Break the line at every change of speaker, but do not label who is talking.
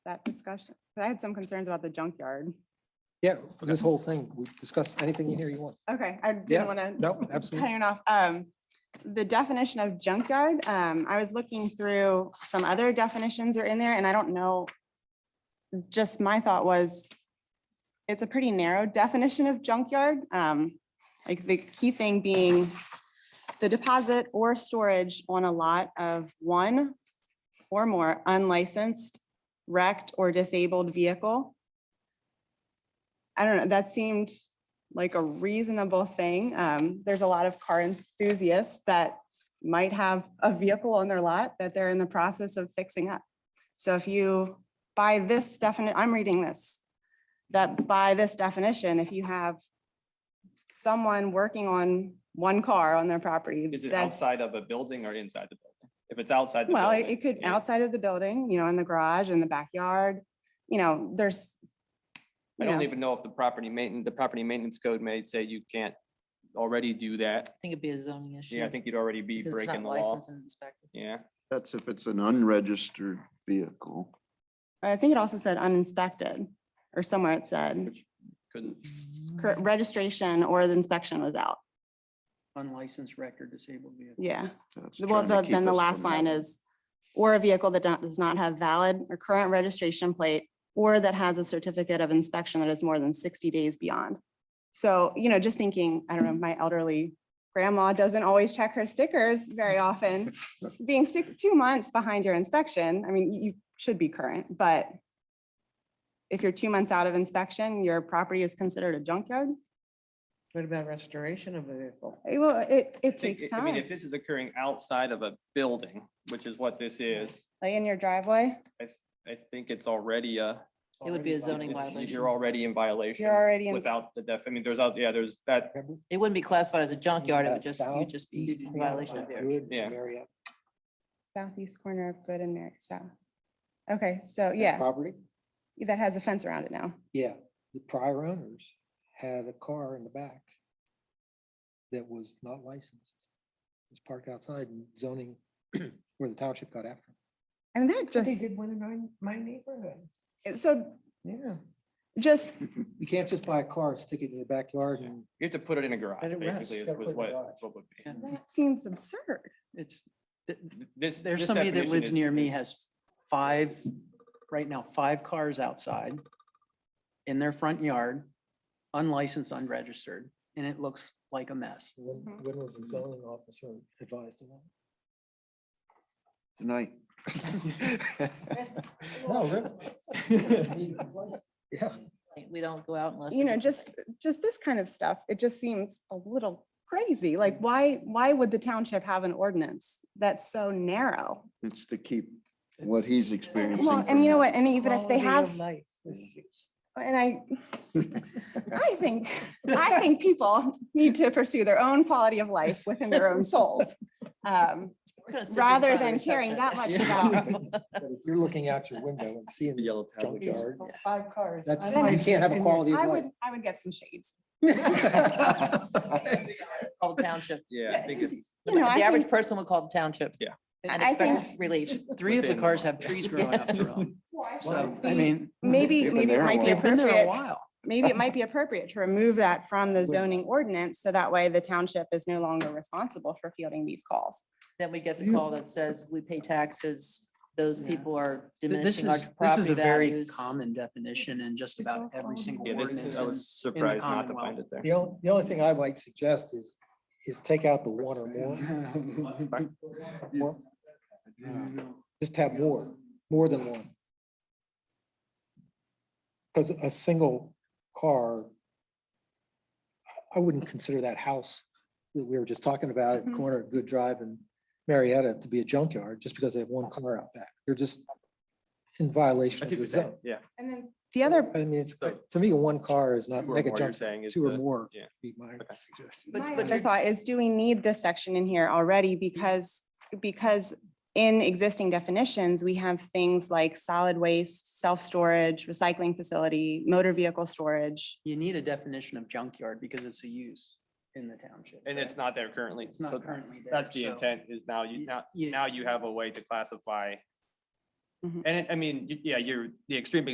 that discussion? 'Cause I had some concerns about the junkyard.
Yeah, this whole thing, we discuss anything in here you want.
Okay, I
Yeah,
didn't want to.
No, absolutely.
Cutting off, um, the definition of junkyard, um, I was looking through some other definitions are in there and I don't know. Just my thought was, it's a pretty narrow definition of junkyard, um, like the key thing being the deposit or storage on a lot of one or more unlicensed, wrecked or disabled vehicle. I don't know, that seemed like a reasonable thing. Um, there's a lot of car enthusiasts that might have a vehicle on their lot that they're in the process of fixing up. So if you, by this definite, I'm reading this, that by this definition, if you have someone working on one car on their property,
Is it
that's
outside of a building or inside the building? If it's outside the building.
well, it it could,
yeah.
outside of the building, you know, in the garage, in the backyard, you know, there's.
I
you
don't
know,
even know if the property maintenance, the property maintenance code may say you can't already do that.
think it'd be a zoning issue.
Yeah, I think you'd already be
because it's
breaking the
not
law.
licensed and inspected.
Yeah,
That's if it's an unregistered vehicle.
I think it also said uninspected or somewhere it said
which couldn't,
cor- registration or the inspection was out.
unlicensed record disabled vehicle.
Yeah.
That's
Well,
trying to
the-
keep
then the
us
last
from
line
having-
is, or a vehicle that don't- does not have valid or current registration plate or that has a certificate of inspection that is more than sixty days beyond. So, you know, just thinking, I don't know, my elderly grandma doesn't always check her stickers very often. Being six, two months behind your inspection, I mean, you you should be current, but if you're two months out of inspection, your property is considered a junkyard.
What about restoration of a vehicle?
Eh, Well, it,
I
it
think-
takes
I mean,
time,
if this is occurring outside of a building, which is what this is,
like in your driveway,
I, th- I think it's already a.
It would be a zoning
You're
violation.
already in violation.
you're already in
Without the def, I mean, there's out, yeah, there's that,
It wouldn't be classified as a junkyard.
Uh,
It would
That
just, you'd
south,
just be
east
in
corner
violation
of
of their.
Good
Yeah.
area
southeast corner of Good and Merrick South. Okay, so yeah,
Property,
that has a fence around it now.
yeah. The prior owners had a car in the back that was not licensed. It was parked outside and zoning where the township got after. it.
And
They
that just,
did one in my, my neighborhood.
so
Yeah.
just,
You can't just buy a car, and stick it in your backyard
Yeah.
and
you have to put it in a garage,
Let it rest,
basically, is
gotta put it in
was
a
what,
garage.
what would be.
Yeah.
that seems absurd.
It's,
Th- This.
there's
this
somebody that
definition
lives
is-
near me
is-
has five, right now, five cars outside in their front yard, unlicensed, unregistered, and it looks like a mess.
when,
Mhm.
when was the zoning officer advised of that?
Tonight.
No, really? Yeah.
We don't go out unless.
You know,
there's a
just, just this kind of stuff, it just seems a little crazy. Like, why, why would the township have an ordinance that's so narrow?
It's to keep what he's experiencing.
Well, and you know what, and even if they
Quality
have,
of life issues.
and I, I think, I think people need to pursue their own quality of life within their own souls. Um,
We're gonna sit you in
rather
front of
than
the
caring that
receptionist.
much
But if you're looking out your window and seeing
The
the
yellow tablet
These
junkyard,
Five cars.
that's, you
Then-
can't have a
unlicensed.
quality
I
of life.
would, I would get some shades.
Call the township.
Yeah, I think it's.
You know, I
The average
think-
person would call the township.
Yeah.
And
I
expect
think-
relief.
Three of the
Within the
cars
law.
have trees growing up
Yes.
through them. So, I
We-
mean,
Maybe,
They've been
maybe it
there a
might be
while.
they've been there a
appropriate,
while.
maybe it might be appropriate to remove that from the zoning ordinance, so that way the township is no longer responsible for fielding these calls.
Then we get the call that says we pay taxes. Those
Yeah.
people are
Th- This
diminishing our
is, this is
property
a very
values.
common definition in just
It's
about
all
every
common.
single
Yeah, this
ordinance.
is, I
in-
was surprised not to find
Commonwealth.
it there.
The only, the only thing I might suggest is, is take out the one or more. More? Just have more, more than one. Because a single car, I wouldn't consider that house that we were just talking about at the
Mhm.
corner of Good Drive and Marietta to be a junkyard, just because they have one car out back. They're just in
I
violation
see
of
what you're
the
saying,
zone.
yeah.
And then. The other,
I mean, it's,
So-
to me, one car is not
Two or
mega
more, you're
junk,
saying is
two or
the-
more.
yeah.
Be my
Okay.
suggestion.
But-
my
but
other thought is, do we need this section in here already? Because, because in existing definitions, we have things like solid waste, self-storage, recycling facility, motor vehicle storage.
You need a definition of junkyard because it's a use in the township.
And it's
right?
not there currently.
It's not
so
currently there.
That's the
so
intent is now you,
y-
now,
yeah.
now you have a way to classify
Mhm.
And it, I mean, y- yeah, you're, the extreme